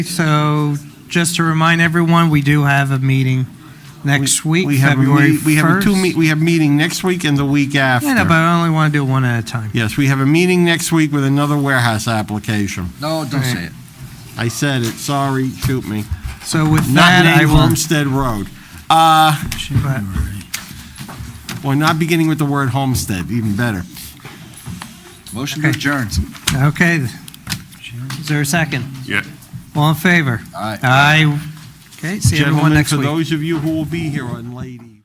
So just to remind everyone, we do have a meeting next week, We have a February meet- We have a two, meet- 1st. we have meeting next week and the week Yeah, no, but after. I only want to do one at a time. Yes, we have a meeting next week with another warehouse application. No, don't say it. I said it, sorry, shoot me. So with Not that, I named will. Homestead Road. Uh, but- Well, not beginning with the word homestead, even better. Motion to Okay. adjourn. Okay. Is there a second? Yeah. All in favor? Aye. Aye. Okay, see everyone Gentlemen, next for week. those of you who will be here on late evening.